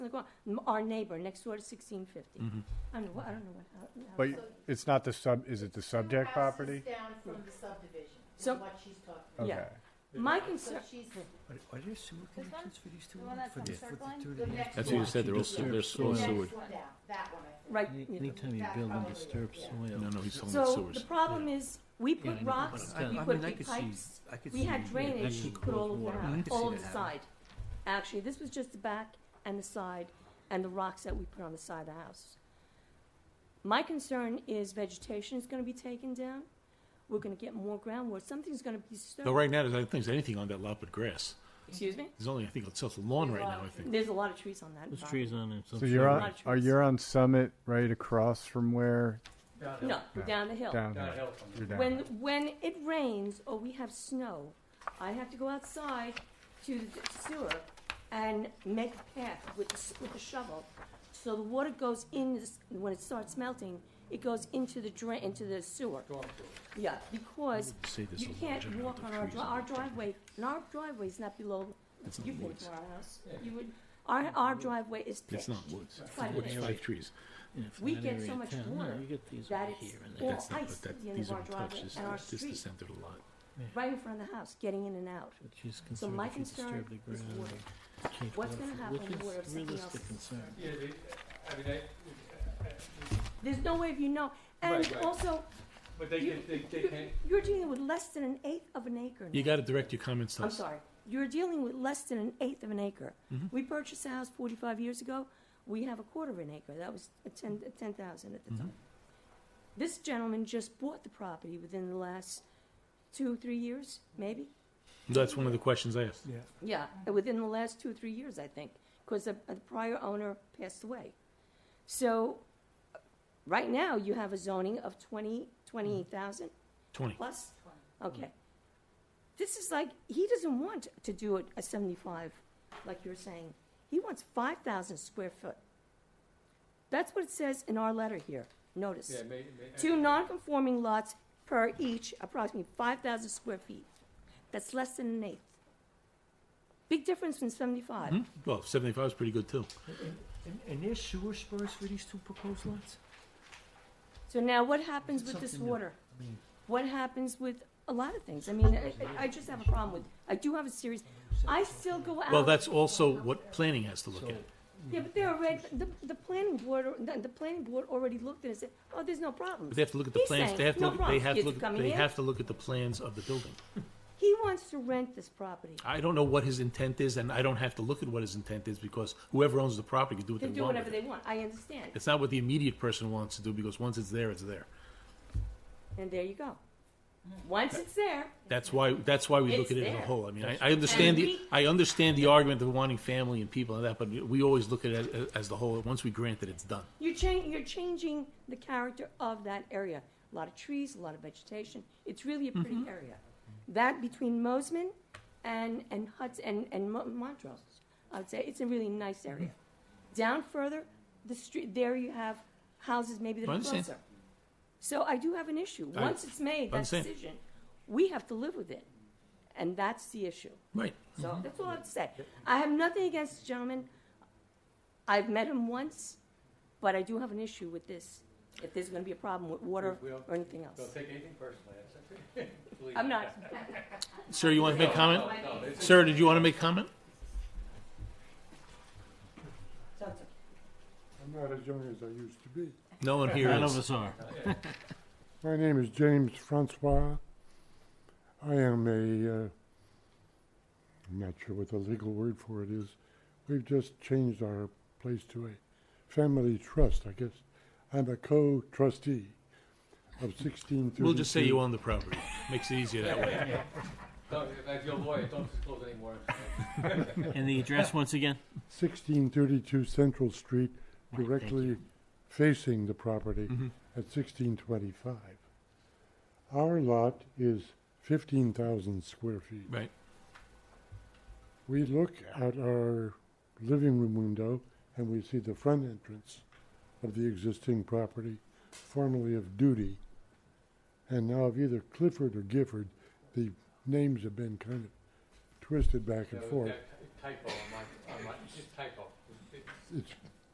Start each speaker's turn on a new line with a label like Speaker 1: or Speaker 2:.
Speaker 1: ground, m- our neighbor next door to sixteen fifty.
Speaker 2: Mm-hmm.
Speaker 1: I don't know, what- I don't know what, how- how.
Speaker 3: But it's not the sub, is it the subject
Speaker 4: Two houses
Speaker 3: property?
Speaker 4: down from the subdivision, is
Speaker 1: So-
Speaker 4: what she's talking about.
Speaker 3: Okay.
Speaker 1: Yeah. My
Speaker 4: So
Speaker 1: concern,
Speaker 4: she's,
Speaker 2: Are, are there sewer
Speaker 5: This one?
Speaker 2: connections for these two?
Speaker 5: The one that's
Speaker 2: lots? For
Speaker 5: on
Speaker 2: the- for the
Speaker 5: Circle Line?
Speaker 2: two
Speaker 4: The
Speaker 2: that-
Speaker 4: next
Speaker 6: That's what you
Speaker 4: one.
Speaker 6: said, they're all,
Speaker 2: Disturbed
Speaker 6: they're full
Speaker 4: the
Speaker 6: of
Speaker 4: next
Speaker 6: sewage.
Speaker 4: one down, that one, I think.
Speaker 1: right.
Speaker 2: Any-
Speaker 1: yeah.
Speaker 2: Anytime you
Speaker 4: That
Speaker 2: build and
Speaker 4: probably is,
Speaker 2: disturb
Speaker 4: yeah.
Speaker 2: soil.
Speaker 6: No, no, he's talking about
Speaker 1: So
Speaker 6: sewers.
Speaker 1: the problem is, we
Speaker 2: Yeah,
Speaker 1: put
Speaker 2: I know, but
Speaker 1: rocks,
Speaker 2: I'm-
Speaker 1: we
Speaker 2: I
Speaker 1: put
Speaker 2: mean, I
Speaker 1: big
Speaker 2: could see-
Speaker 1: pipes.
Speaker 2: I could
Speaker 1: We
Speaker 2: see
Speaker 1: had
Speaker 2: that
Speaker 1: drainage
Speaker 2: actually
Speaker 1: put all
Speaker 2: close
Speaker 1: over the
Speaker 2: water. I
Speaker 1: house,
Speaker 2: could see
Speaker 1: all
Speaker 2: that
Speaker 1: the
Speaker 2: happening.
Speaker 1: side. Actually, this was just the back and the side and the rocks that we put on the side of the house. My concern is vegetation is gonna be taken down. We're gonna get more groundwater. Something's gonna be
Speaker 6: No,
Speaker 1: disturbed.
Speaker 6: right now, there's- I don't think there's anything on that lot but grass.
Speaker 1: Excuse me?
Speaker 6: There's only, I think, it's just the lawn right now, I think.
Speaker 1: There's a lot of trees on that.
Speaker 2: There's
Speaker 1: property.
Speaker 2: trees on it.
Speaker 3: So you're on,
Speaker 1: Lot of
Speaker 3: are
Speaker 1: trees.
Speaker 3: you on Summit right across from where,
Speaker 1: No, down the hill.
Speaker 3: down
Speaker 7: Gotta
Speaker 3: here?
Speaker 7: help them.
Speaker 3: You're down
Speaker 1: When,
Speaker 3: here.
Speaker 1: when it rains or we have snow, I have to go outside to the sewer and make a path with, the s- with the shovel. So the water goes in, this- when it starts melting, it goes into the drain, into the sewer.
Speaker 7: Storm sewer.
Speaker 1: Yeah, because
Speaker 6: Say there's
Speaker 1: you
Speaker 6: a large
Speaker 1: can't
Speaker 6: amount
Speaker 1: walk
Speaker 6: of
Speaker 1: on our,
Speaker 6: trees
Speaker 1: dri-
Speaker 6: on
Speaker 1: our
Speaker 6: that property.
Speaker 1: driveway, and our driveway's not below,
Speaker 6: It's not
Speaker 1: you think
Speaker 6: woods.
Speaker 1: to our house. You would, our, our driveway is
Speaker 6: It's
Speaker 1: pitched.
Speaker 6: not woods.
Speaker 1: It's not
Speaker 6: It's
Speaker 1: woods.
Speaker 6: fake trees.
Speaker 1: we get so much water
Speaker 2: You get these
Speaker 1: that
Speaker 2: over
Speaker 1: it's
Speaker 2: here and
Speaker 1: all-
Speaker 2: there.
Speaker 6: That's not,
Speaker 1: ice
Speaker 6: but
Speaker 1: at the
Speaker 6: that,
Speaker 1: end
Speaker 6: these
Speaker 1: of our
Speaker 6: aren't touched.
Speaker 1: driveway
Speaker 6: This
Speaker 1: and our
Speaker 6: this is the
Speaker 1: street.
Speaker 6: center of the lot.
Speaker 1: right in front of the house, getting in and out.
Speaker 2: But she's
Speaker 1: So
Speaker 2: concerned
Speaker 1: my
Speaker 2: if you disturb
Speaker 1: concern
Speaker 2: the
Speaker 1: is
Speaker 2: ground
Speaker 1: water.
Speaker 2: or change
Speaker 1: What's
Speaker 2: water
Speaker 1: gonna
Speaker 2: flow,
Speaker 1: happen
Speaker 2: which
Speaker 1: when
Speaker 2: is
Speaker 1: water if something else
Speaker 2: realistic
Speaker 1: is-
Speaker 2: concern.
Speaker 7: Yeah, they, I mean, I, I-
Speaker 1: There's no way of you know. And
Speaker 7: Right, right.
Speaker 1: also,
Speaker 7: but they,
Speaker 1: You-
Speaker 7: can- they, they
Speaker 1: you-
Speaker 7: can't,
Speaker 1: you're dealing with less than an eighth of an acre.
Speaker 6: You
Speaker 1: now.
Speaker 6: gotta direct your comments to
Speaker 1: I'm
Speaker 6: us.
Speaker 1: sorry. You're dealing with less than an eighth of an acre. We purchased a house 45 years ago. We have a quarter of an acre. That was a 10 a 10,000 at the time. This gentleman just bought the property within the last two, three years, maybe.
Speaker 6: That's one of the questions I asked.
Speaker 1: Yeah, within the last two or three years, I think, because the, the prior owner passed away. So, uh, right now, you have a zoning of 20, 28,000
Speaker 6: Twenty.
Speaker 1: plus? Okay. This is like, he doesn't want to do it a 75, like you're saying. He wants 5,000 square foot. That's what it says in our letter here, notice.
Speaker 7: yeah, may, may.
Speaker 1: Two non-conforming lots per each, approximately five thousand square feet. That's less than an eighth. Big difference from seventy-five.
Speaker 6: Well, seventy-five is pretty good too.
Speaker 2: And, and there's sewer spurs for these two proposed lots?
Speaker 1: So now what happens with this
Speaker 2: Something that-
Speaker 1: water?
Speaker 2: I mean,
Speaker 1: What happens with a lot of things? I mean, I, I just have a problem with, I do have a serious, I still go out.
Speaker 6: Well, that's also what planning has to look
Speaker 2: so
Speaker 6: at.
Speaker 1: Yeah, but they're already, the, the planning board, or- the, the planning board already looked at it and said, oh, there's no problems.
Speaker 6: But they have to look at the
Speaker 1: He's
Speaker 6: plans.
Speaker 1: saying,
Speaker 6: They have to
Speaker 1: no
Speaker 6: look, they
Speaker 1: problems,
Speaker 6: have to
Speaker 1: kids
Speaker 6: look,
Speaker 1: coming
Speaker 6: they
Speaker 1: in.
Speaker 6: have to look at the plans of the building.
Speaker 1: He wants to rent this property.
Speaker 6: I don't know what his intent is, and I don't have to look at what his intent is because whoever owns the property can do what
Speaker 1: They
Speaker 6: they
Speaker 1: do
Speaker 6: want with
Speaker 1: whatever
Speaker 6: it.
Speaker 1: they want, I understand.
Speaker 6: It's not what the immediate person wants to do because once it's there, it's there.
Speaker 1: And there you go. Once it's there,
Speaker 6: That's why. That's why we look
Speaker 1: It's
Speaker 6: at it as a
Speaker 1: there.
Speaker 6: whole. I mean, I, I understand
Speaker 1: And
Speaker 6: the
Speaker 1: we-
Speaker 6: I understand the argument of wanting family and people and that, but we always look at it as, as the whole. Once we grant it, it's done.
Speaker 1: You're, cha- you're changing the character of that area. A lot of trees, a lot of vegetation. It's really a
Speaker 6: Mm-hmm.
Speaker 1: pretty area. That between Mosman and, and Huts and, and Mo- Montrose, I would say it's a really nice
Speaker 6: Mm-hmm.
Speaker 1: area. Down further, the street there you have houses maybe that
Speaker 6: I
Speaker 1: are
Speaker 6: understand.
Speaker 1: closer. So I do have an issue.
Speaker 6: I-
Speaker 1: Once it's made
Speaker 6: I
Speaker 1: that
Speaker 6: understand.
Speaker 1: decision, we have to live with it, and that's the issue.
Speaker 6: Right.
Speaker 1: So
Speaker 7: Mm-hmm.
Speaker 1: that's all I have to say. I have nothing against the gentleman. I've met him once, but I do have an issue with this. If there's going to be a problem with water
Speaker 7: We- we'll-
Speaker 1: or anything
Speaker 7: They'll
Speaker 1: else,
Speaker 7: take anything personally, that's okay. Believe
Speaker 1: I'm
Speaker 7: me.
Speaker 1: not.
Speaker 6: Sir, you want to make comment?
Speaker 7: No, no, it's-
Speaker 6: Sir, did you want to make comment?
Speaker 1: So it's okay.
Speaker 8: I'm not as young as I used to be.
Speaker 6: No one here
Speaker 2: None of
Speaker 6: is.
Speaker 2: us are.
Speaker 8: My name is James Francois. I am a, uh, I'm not sure what the legal word for it is. We've just changed our place to a family trust, I guess. I'm a co-trustee of 1632.
Speaker 6: We'll just say you own the property. Makes it easier that way.
Speaker 7: Don't, as your lawyer, don't disclose any more information.
Speaker 2: And the address once again?
Speaker 8: 1632 Central
Speaker 2: Right,
Speaker 8: Street,
Speaker 2: thank
Speaker 8: directly facing the property
Speaker 6: Mm-hmm.
Speaker 8: at 1625. Our lot is 15,000 square feet.
Speaker 6: Right.
Speaker 8: We look at our living room window and we see the front entrance of the existing property, formerly of Duty, and now of either Clifford or Gifford. The names have been kind of twisted back
Speaker 7: There
Speaker 8: and
Speaker 7: was
Speaker 8: forth.
Speaker 7: that Typo on my, on my, just typo. It's
Speaker 8: it's